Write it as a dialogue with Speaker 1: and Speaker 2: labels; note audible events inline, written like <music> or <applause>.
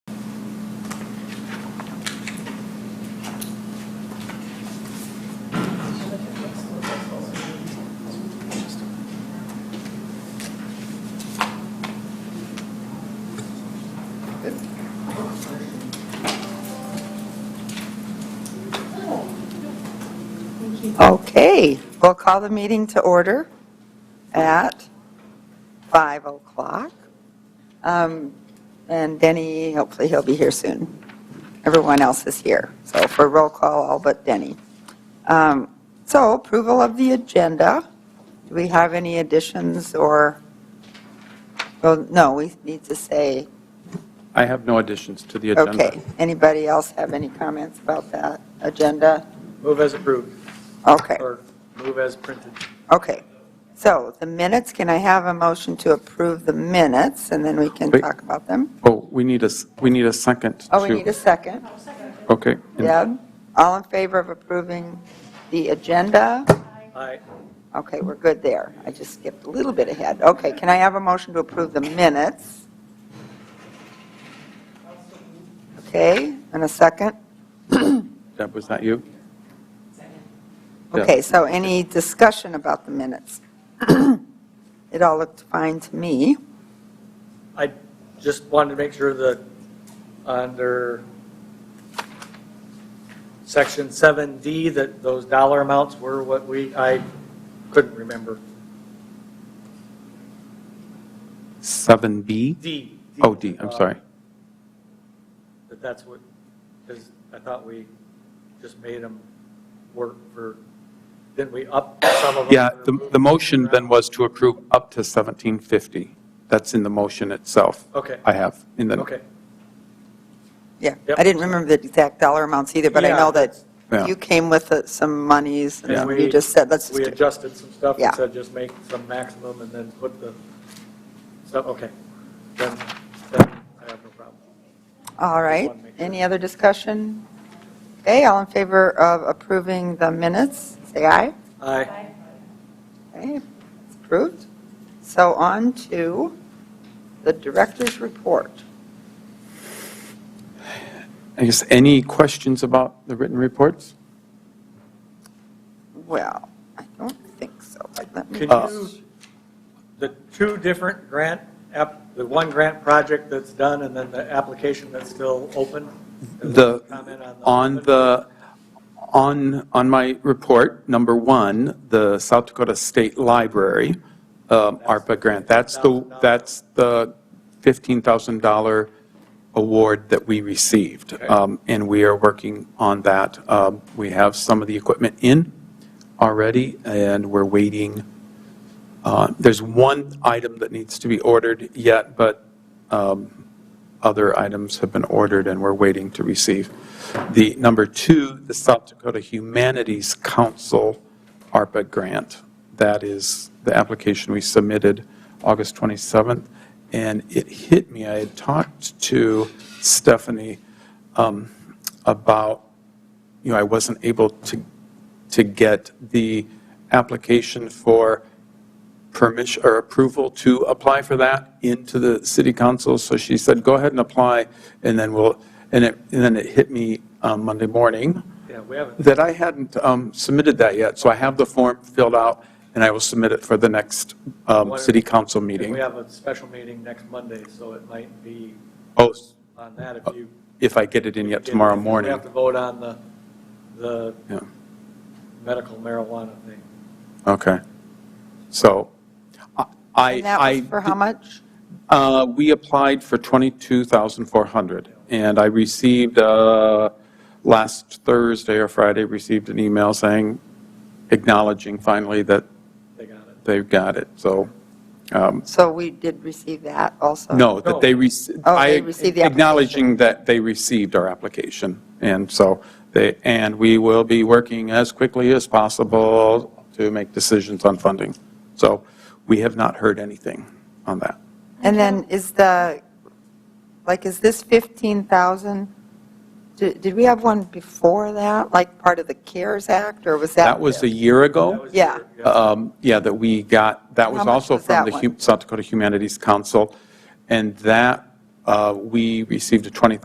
Speaker 1: Okay, we'll call the meeting to order at 5 o'clock. Um, And Denny, hopefully he'll be here soon. Everyone else is here, so for roll call, all but Denny. Um, So approval of the agenda. Do we have any additions or, well, no, we need to say,
Speaker 2: I have no additions to the agenda.
Speaker 1: okay. Anybody else have any comments about that agenda?
Speaker 3: Move as approved,
Speaker 1: Okay.
Speaker 3: or move as printed.
Speaker 1: Okay, so the minutes, can I have a motion to approve the minutes, and then we can
Speaker 2: Wait.
Speaker 1: talk about them?
Speaker 2: Oh, we need a, s- we need a second.
Speaker 1: Oh, we
Speaker 2: to-
Speaker 1: need a second.
Speaker 2: Okay. And
Speaker 1: Deb, all in favor of approving the agenda?
Speaker 3: Aye.
Speaker 1: Okay, we're good there. I just skipped a little bit ahead. Okay, can I have a motion to approve the minutes? Okay, and a second?
Speaker 2: Deb, was that you? Yeah.
Speaker 1: Okay, so any discussion about the minutes? <clears throat> It all looked fine to me.
Speaker 3: I just wanted to make sure that under section 7D, that those dollar amounts were what we, I couldn't remember.
Speaker 2: 7B?
Speaker 3: D.
Speaker 2: Oh, D, I'm
Speaker 3: uh,
Speaker 2: sorry.
Speaker 3: That that's what, because I thought we just made them work for, didn't we up some of them?
Speaker 2: Yeah,
Speaker 3: or
Speaker 2: the,
Speaker 3: move
Speaker 2: the motion
Speaker 3: them
Speaker 2: then
Speaker 3: around?
Speaker 2: was to approve up to 1750. That's in the motion itself.
Speaker 3: Okay,
Speaker 2: I have in the.
Speaker 3: okay.
Speaker 1: Yeah,
Speaker 3: Yep.
Speaker 1: I didn't remember the exact dollar amounts either, but I
Speaker 3: Yeah,
Speaker 1: know that
Speaker 2: Yeah.
Speaker 1: you came with uh, some monies,
Speaker 3: Yeah.
Speaker 1: and you just said, let's
Speaker 3: We
Speaker 1: just do
Speaker 3: adjusted some stuff
Speaker 1: Yeah.
Speaker 3: and said just make some maximum and then put the, so, okay. Then, then I have no problem.
Speaker 1: All right,
Speaker 3: wanted to make sure.
Speaker 1: any other discussion? Okay, all in favor of approving the minutes, say aye.
Speaker 3: Aye.
Speaker 1: Okay, it's approved. So on to the director's report.
Speaker 2: I guess, any questions about the written reports?
Speaker 1: Well, I don't think so, but let me,
Speaker 3: Could
Speaker 2: Uh,
Speaker 3: you, the two different grant, app, the one grant project that's done and then the application that's still open?
Speaker 2: The-
Speaker 3: Comment on the.
Speaker 2: On the, on, on my report, number one, the South Dakota State Library um, ARPA grant, that's the,
Speaker 3: $15,000.
Speaker 2: that's the $15,000 award that we received.
Speaker 3: Okay.
Speaker 2: Um, And we are working on that. Um, We have some of the equipment in already, and we're waiting. uh, There's one item that needs to be ordered yet, but um, other items have been ordered and we're waiting to receive. The number two, the South Dakota Humanities Council ARPA grant. That is the application we submitted August 27th. And it hit me, I had talked to Stephanie um, about, you know, I wasn't able to, to get the application for permission or approval to apply for that into the city council. So she said, go ahead and apply, and then we'll, and it, and then it hit me um, Monday morning
Speaker 3: Yeah, we haven't,
Speaker 2: that I hadn't um, submitted that yet. So I have the form filled out, and I will submit it for the next um, city council
Speaker 3: we
Speaker 2: meeting.
Speaker 3: have a special meeting next Monday, so it might be
Speaker 2: Oh,
Speaker 3: on that if you.
Speaker 2: if I get it in yet tomorrow morning.
Speaker 3: We have to vote on the, the
Speaker 2: Yeah.
Speaker 3: medical marijuana thing.
Speaker 2: Okay. So I, I.
Speaker 1: and that was for how much?
Speaker 2: Uh, We applied for 22,400, and I received, uh, last Thursday or Friday, received an email saying, acknowledging finally that
Speaker 3: They got it.
Speaker 2: they've got it, so, um,
Speaker 1: So we did receive that also?
Speaker 2: no, that they, rec-
Speaker 1: Uh, Oh,
Speaker 2: I,
Speaker 1: they received the application.
Speaker 2: acknowledging that they received our application, and so, they, and we will be working as quickly as possible to make decisions on funding. So we have not heard anything on that.
Speaker 1: And then is the, like, is this 15,000, did did we have one before that, like part of the CARES Act, or was that?
Speaker 2: That was a year ago.
Speaker 3: That was
Speaker 1: Yeah.
Speaker 3: your-
Speaker 2: um, Yeah, that we got, that was
Speaker 1: How much
Speaker 2: also
Speaker 1: was
Speaker 2: from
Speaker 1: that
Speaker 2: the
Speaker 1: one?
Speaker 2: Hu- South Dakota Humanities Council, and that, uh, we received a twenty.